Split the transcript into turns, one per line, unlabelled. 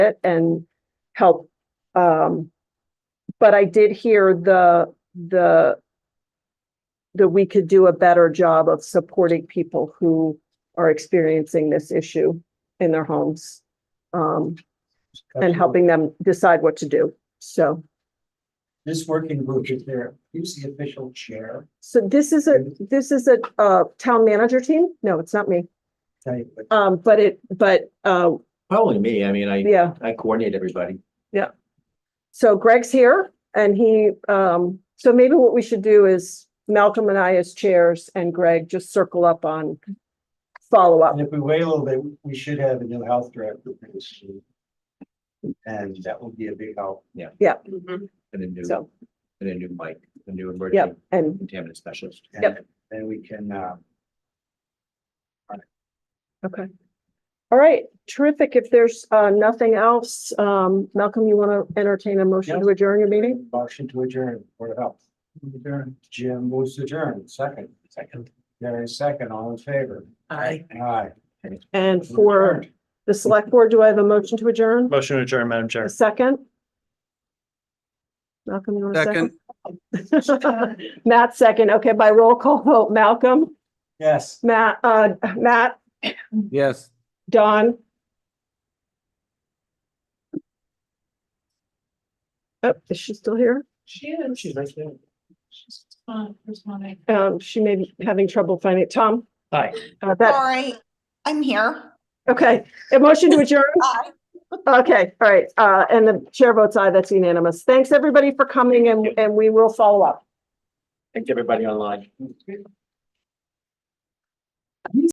it and help. Um, but I did hear the, the that we could do a better job of supporting people who are experiencing this issue in their homes. Um, and
Absolutely.
helping them decide what to do. So,
This working group is there, who's the official chair?
so this is a, this is a, uh, town manager team? No, it's not me.
Tell you what-
Um, but it, but, uh,
Probably me. I mean, I,
yeah.
I coordinate everybody.
So Greg's here and he, um, so maybe what we should do is Malcolm and I as chairs and Greg just circle up on follow-up.
And if we wait a little bit, we should have a new health director for this year. And that will be a big help.
And a new,
So,
and a new mic, a new
yeah,
emergency
and
contaminant specialist.
And
Yep.
Then we can, uh,
Okay. All right, terrific. If there's uh nothing else, um, Malcolm, you want to entertain a motion to adjourn your meeting?
motion to adjourn, Board of Health. Adjourn. Jim moves to adjourn, second. Second. Gary, second, all in favor?
Aye.
Aye.
And for the select board, do I have a motion to adjourn?
Motion to adjourn, Madam
A
Chair.
second? Malcolm, you want a second? Matt, second. Okay, by roll call vote, Malcolm,
Yes.
Matt, uh, Matt,
Yes.
Don. Oh, is she still here?
She is. She's
right there.
fun, responding.
Um, she may be having trouble finding it. Tom?
Aye.
Uh, that,
Sorry, I'm here.
Okay, a motion to adjourn?
Aye.
Okay, all right, uh, and the chair votes aye, that's unanimous. Thanks, everybody, for coming and, and we will follow up.
Thank you, everybody online.